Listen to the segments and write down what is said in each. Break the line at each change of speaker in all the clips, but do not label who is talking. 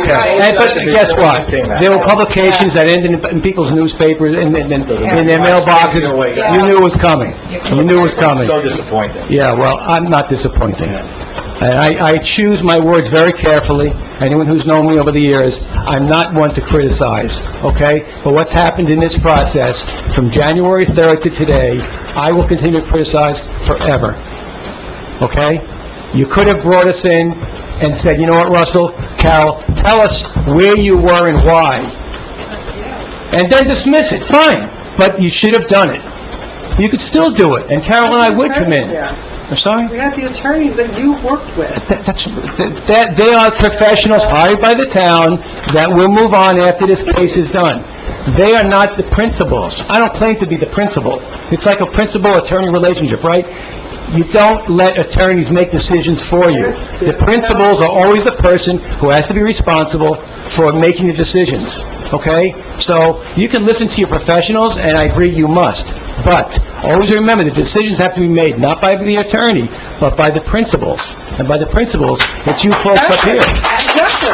Okay.
And, but guess what? There were publications that ended in- in people's newspapers and, and, in their mailboxes. You knew it was coming. You knew it was coming.
So disappointing.
Yeah, well, I'm not disappointed. And I, I choose my words very carefully. Anyone who's known me over the years, I'm not one to criticize, okay? But what's happened in this process, from January 3rd to today, I will continue to criticize forever, okay? You could have brought us in and said, "You know what, Russell, Carol, tell us where you were and why," and then dismiss it, fine, but you should have done it. You could still do it, and Carol and I would come in. I'm
We
sorry?
have the attorneys that you worked with.
That- That's, that, they are professionals hired by the town that will move on after this case is done. They are not the principals. I don't claim to be the principal. It's like a principal-attorney relationship, right? You don't let attorneys make decisions for you. The principals are always the person who has to be responsible for making the decisions, okay? So you can listen to your professionals, and I agree you must, but always remember, the decisions have to be made not by the attorney, but by the principals. And by the principals, it's you folks up here.
Exactly.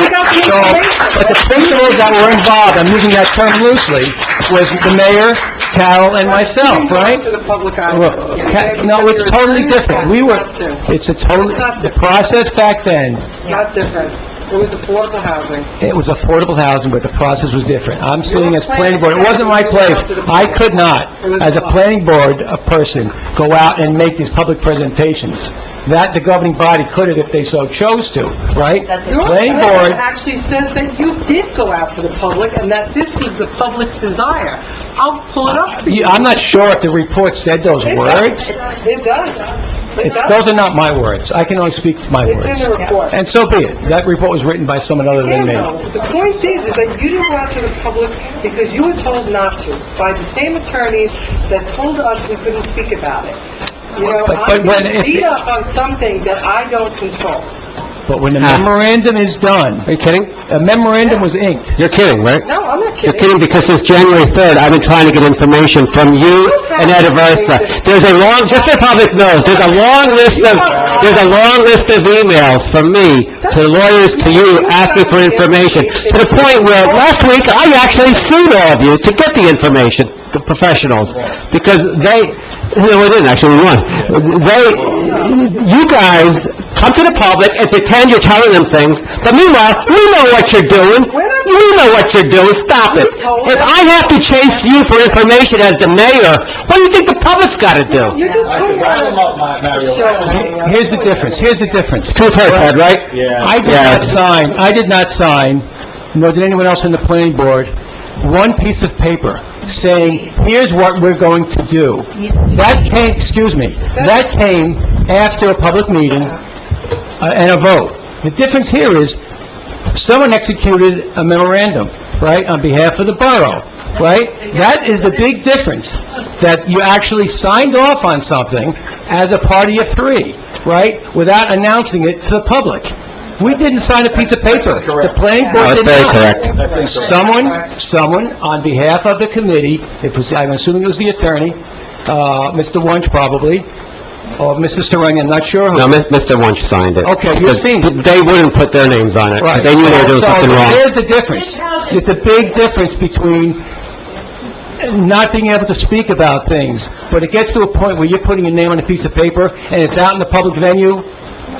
We got the
So,
information.
but the principals that were involved, I'm using that term loosely, was the mayor, Carol, and myself, right?
To the public eye.
Look, Ca- No, it's totally different. We were,
It's not
it's a totally, the process back then,
It's not different. It was affordable housing.
it was affordable housing, but the process was different. I'm sitting as planning board, it wasn't my place. I could not, as a planning board, a person, go out and make these public presentations. That the governing body could have if they so chose to, right?
Your
Planning
letter
board,
actually says that you did go out to the public and that this was the public's desire. I'll pull it up for you.
you- I'm not sure if the report said those
It
words.
does. It does. It
It's,
does.
those are not my words. I can only speak my words.
It's in the report.
And so be it. That report was written by someone other than me.
Daniel, the point is, is that you didn't go out to the public because you were told not to by the same attorneys that told us we couldn't speak about it. You know,
But- but
I'm
when
getting
if-
beat up on something that I don't control.
But when the memorandum is done... Ah. Are you kidding? A memorandum was inked.
You're kidding, right?
No, I'm not
You're kidding,
kidding.
because since January 3rd, I've been trying to get information from you and Ed Aversa. There's a long, just so the public knows, there's a long list of, there's a long list of emails from me to lawyers, to you, asking for information, to the point where last week, I actually sued all of you to get the information, the professionals, because they, no, we didn't, actually, we won. They, you guys come to the public and pretend you're telling them things, but meanwhile, we know what you're doing. We know what you're doing, stop it. If I have to chase you for information as the mayor, what do you think the public's gotta do?
You're just putting on a show.
Here's the difference, here's the difference.
Truth hurts, Ed, right?
I did not sign, I did not sign, nor did anyone else on the planning board, one piece of paper saying, "Here's what we're going to do." That came, excuse me, that came after a public meeting uh, and a vote. The difference here is, someone executed a memorandum, right, on behalf of the borough, right? That is the big difference, that you actually signed off on something as a party of three, right, without announcing it to the public. We didn't sign a piece of paper. The planning board
That's
did
very
not.
correct.
That's incorrect.
Someone, someone on behalf of the committee, it was, I'm assuming it was the attorney, uh, Mr. Wunsch probably, or Mr. Serena, I'm not sure who.
No, Mi- Mr. Wunsch signed it.
Okay, you've seen it.
They wouldn't put their names on it.
Right.
They knew they were doing
So,
something wrong.
There's the difference. It's a big difference between not being able to speak about things, but it gets to a point where you're putting your name on a piece of paper, and it's out in the public venue,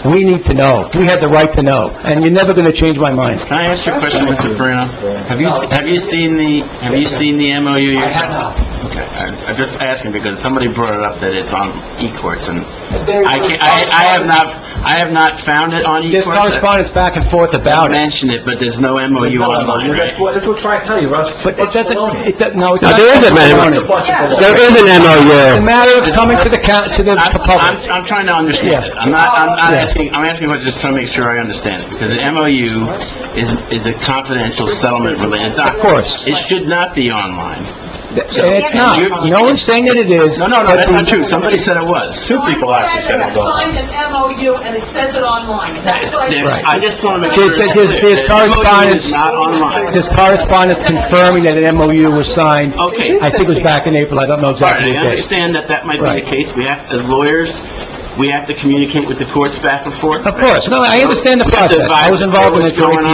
we need to know. We have the right to know, and you're never going to change my mind.
Can I ask you a question, Mr. Perino? Have you, have you seen the, have you seen the MOU yourself? Okay, I- I'm just asking because somebody brought it up that it's on eCourts and I can't, I, I have not, I have not found it on
There's
eCourts.
correspondence back and forth
I
about it,
mentioned it, but there's no MOU online,
That's
right?
what, that's what I'm trying to tell you, Russ.
but it doesn't, it doesn't, no, it's
No,
not...
there is a matter, there is an
It's a
MOU.
matter of coming to the, coun- to the
I'm,
public.
I'm, I'm trying to understand it. I'm not, I'm not
Yeah.
asking, I'm asking, but just trying to make sure I understand it because the MOU is, is a confidential settlement related document.
course.
It should not be online.
And It's not. No one's saying that it is.
No, no, no,
but
that's
the-
not true. Somebody said it was.
Two people actually said it was all.
I signed an MOU and it says it online. That's what I
There's-
Right.
I just want to make sure
There's,
it's
there's,
clear.
there's
The MOU is
correspondence,
not online.
there's correspondence confirming that an MOU was signed.
Okay.
I think it was back in April, I don't know
All right,
exactly
I
the date.
understand that that might be
Right.
the case. We have, as lawyers, we have to communicate with the courts back and forth.
Of course, no, I understand the process, I was involved in it
What's going
for 18